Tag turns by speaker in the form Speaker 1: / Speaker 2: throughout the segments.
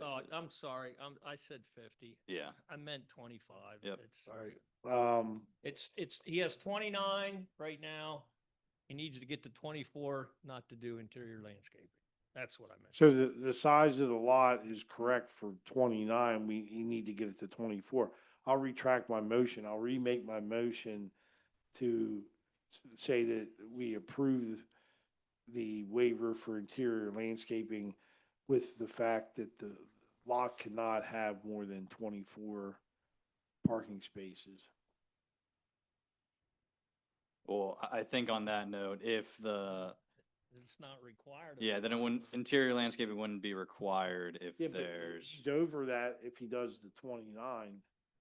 Speaker 1: I, Oh, I'm sorry, I'm, I said fifty.
Speaker 2: Yeah,
Speaker 1: I meant twenty-five.
Speaker 2: Yep.
Speaker 1: It's-
Speaker 3: Sorry. Um,
Speaker 1: It's, it's, he has twenty-nine right now. He needs to get to twenty-four not to do interior landscaping. That's what I meant.
Speaker 3: so the, the size of the lot is correct for twenty-nine, we, you need to get it to twenty-four. I'll retract my motion, I'll remake my motion to s- say that we approve the waiver for interior landscaping with the fact that the lot cannot have more than twenty-four parking spaces.
Speaker 2: well, I, I think on that note, if the,
Speaker 1: It's not required. of
Speaker 2: yeah,
Speaker 1: him.
Speaker 2: then it wouldn't, interior landscaping wouldn't be required
Speaker 3: Yeah,
Speaker 2: if
Speaker 3: but
Speaker 2: there's,
Speaker 3: He's over that if he does the twenty-nine.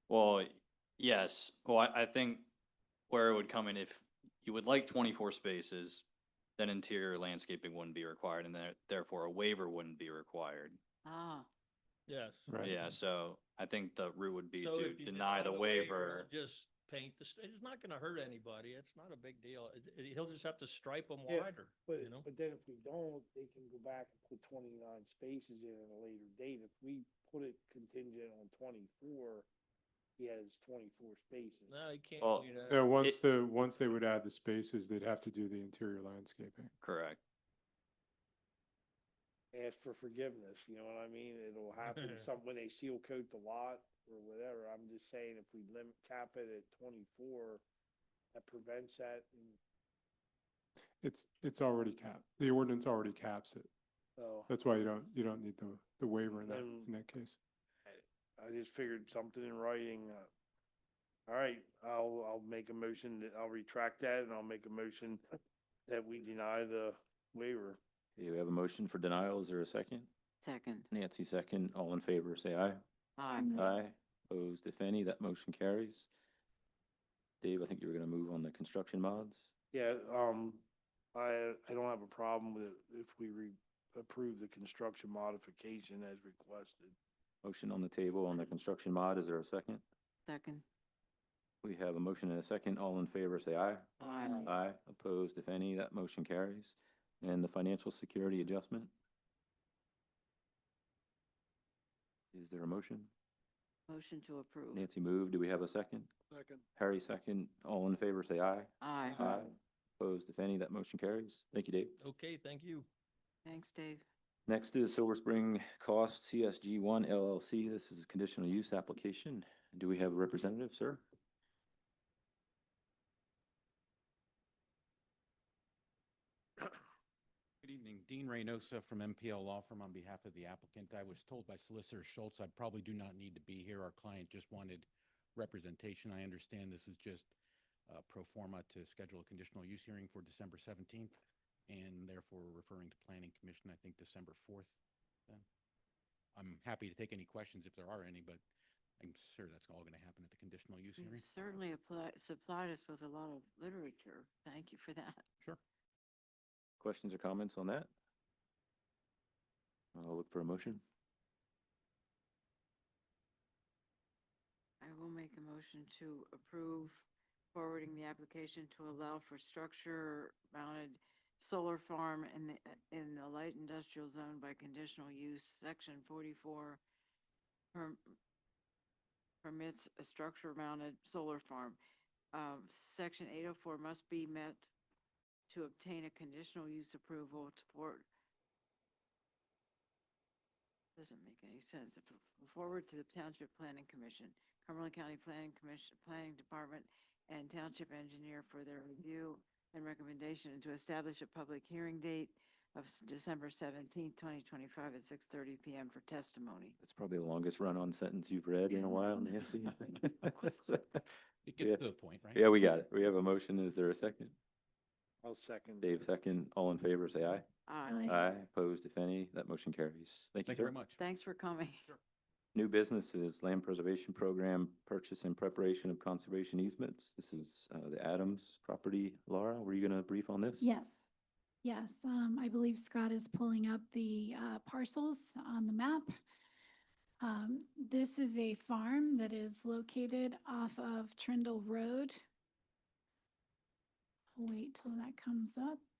Speaker 2: well, yes, well, I, I think where it would come in, if you would like twenty-four spaces, then interior landscaping wouldn't be required and there, therefore a waiver wouldn't be required.
Speaker 4: Ah,
Speaker 1: Yes.
Speaker 3: Right.
Speaker 2: Yeah, so I think the route would be
Speaker 1: So
Speaker 2: to
Speaker 1: if you
Speaker 2: deny the waiver.
Speaker 1: he'll Just paint the, st- it's not gonna hurt anybody. It's not a big deal. It- it- He'll just have to stripe them
Speaker 3: Yeah,
Speaker 1: wider,
Speaker 3: But,
Speaker 1: you know?
Speaker 3: but then if we don't, they can go back and put twenty-nine spaces in at a later date. If we put it contingent on twenty-four, he has twenty-four spaces.
Speaker 1: No, you can't
Speaker 2: Well,
Speaker 1: do that.
Speaker 5: Yeah, Uh,
Speaker 2: It-
Speaker 5: once the, once they would add the spaces, they'd have to do the interior landscaping.
Speaker 2: Correct.
Speaker 3: Ask for forgiveness, you know what I mean? It'll happen some, when they seal coat the lot or whatever. I'm just saying if we limit, cap it at twenty-four, that prevents that and,
Speaker 5: It's, it's already capped. The ordinance already caps it.
Speaker 3: oh.
Speaker 5: That's why you don't, you don't need the, the waiver in that,
Speaker 3: Then-
Speaker 5: in that case.
Speaker 3: I just figured something in writing. uh, All right, I'll, I'll make a motion that I'll retract that and I'll make a motion that we deny the waiver.
Speaker 6: You have a motion for denial. Is there a second?
Speaker 4: second.
Speaker 6: Nancy, second. All in favor, say aye.
Speaker 4: Aye.
Speaker 6: Aye. Opposed, if any, that motion carries. Dave, I think you were going to move on the construction mods.
Speaker 3: Yeah, um, I, I don't have a problem with it if we re, approve the construction modification as requested.
Speaker 6: Motion on the table on the construction mod. Is there a second?
Speaker 4: Second.
Speaker 6: We have a motion and a second. All in favor, say aye.
Speaker 4: Aye.
Speaker 6: Aye. Opposed, if any, that motion carries. And the financial security adjustment? Is there a motion?
Speaker 4: Motion to approve.
Speaker 6: Nancy moved. Do we have a second?
Speaker 3: Second.
Speaker 6: Harry, second. All in favor, say aye.
Speaker 4: Aye.
Speaker 6: Opposed, if any, that motion carries. Thank you, Dave.
Speaker 1: Okay, thank you.
Speaker 4: Thanks, Dave.
Speaker 6: Next is Silver Spring Cost CSG One LLC. This is a conditional use application. Do we have a representative, sir?
Speaker 7: Good evening, Dean Reynosa from MPL Law Firm on behalf of the applicant. I was told by Solicitor Schultz I probably do not need to be here. Our client just wanted representation. I understand this is just uh, pro forma to schedule a conditional use hearing for December 17th and therefore we're referring to Planning Commission, I think, December 4th. then. I'm happy to take any questions if there are any, but I'm sure that's all going to happen at the conditional use
Speaker 4: You've
Speaker 7: hearing.
Speaker 4: Mm, certainly applied, supplied us with a lot of literature. Thank you for that.
Speaker 7: Sure.
Speaker 6: Questions or comments on that? I'll look for a motion.
Speaker 4: I will make a motion to approve forwarding the application to allow for structure mounted solar farm in the, in the light industrial zone by conditional use, section forty-four. perm- Permits a structure mounted solar farm. Um, section eight oh four must be met to obtain a conditional use approval to for, doesn't make any sense. F- f- Forward to the Township Planning Commission, Cumberland County Planning Commission, Planning Department, and Township Engineer for their review and recommendation, and to establish a public hearing date of s- December seventeenth, twenty twenty-five at six thirty PM for testimony.
Speaker 6: That's probably the longest run-on sentence you've read in a while, Nancy.
Speaker 7: It
Speaker 6: Yeah.
Speaker 7: gets to the point, right?
Speaker 6: Yeah, we got it. We have a motion. Is there a second?
Speaker 3: I'll second.
Speaker 6: Dave, second. All in favor, say aye.
Speaker 4: Aye.
Speaker 6: Aye. Opposed, if any, that motion carries. Thank you,
Speaker 7: Thank you
Speaker 6: sir.
Speaker 7: very much.
Speaker 4: Thanks for coming.
Speaker 6: New businesses, land preservation program, purchase and preparation of conservation easements. This is uh, the Adams property. Laura, were you going to brief on this?
Speaker 8: Yes, yes. Um, I believe Scott is pulling up the uh, parcels on the map. Um, this is a farm that is located off of Trindle Road. Wait till that comes up.